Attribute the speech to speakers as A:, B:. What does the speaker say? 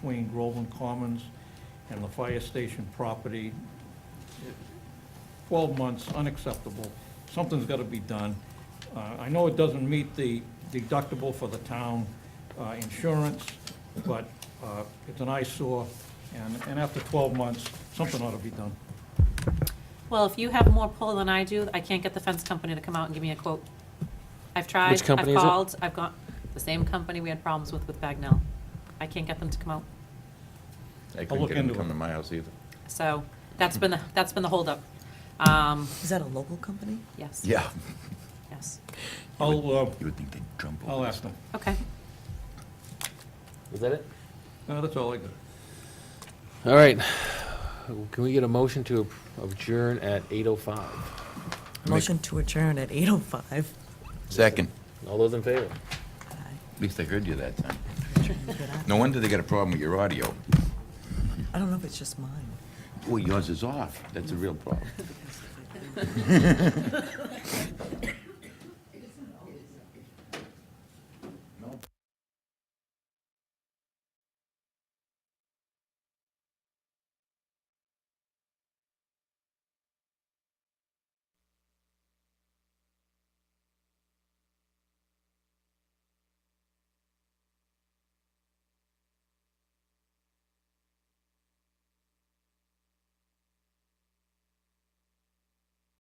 A: between Groveland Commons and the fire station property. Twelve months, unacceptable. Something's gotta be done. Uh, I know it doesn't meet the deductible for the town uh, insurance, but uh, it's an eyesore, and, and after twelve months, something ought to be done.
B: Well, if you have more pull than I do, I can't get the fence company to come out and give me a quote. I've tried,
C: Which
B: I've
C: company is it?
B: called, I've got, the same company we had problems with with Bagnell. I can't get them to come out.
D: I
A: look
D: couldn't get him
A: into
D: to come
A: it.
D: to my house either.
B: So that's been, the that's been the holdup. Um,
E: Is that a local company?
B: yes,
D: Yeah.
B: yes.
A: I'll, uh,
D: You would think they'd jump over.
A: I'll
D: this
A: ask them.
B: Okay,
C: Is that it?
A: Uh, That's all I got.
C: All right. Can we get a motion to adjourn at 8:05?
E: Motion to adjourn at 8:05.
D: Second,
C: All those in favor?
D: at least I heard you that time.
E: I
D: No wonder they got a problem with your audio.
E: don't know if it's just mine.
D: Well, yours is off. That's a real problem.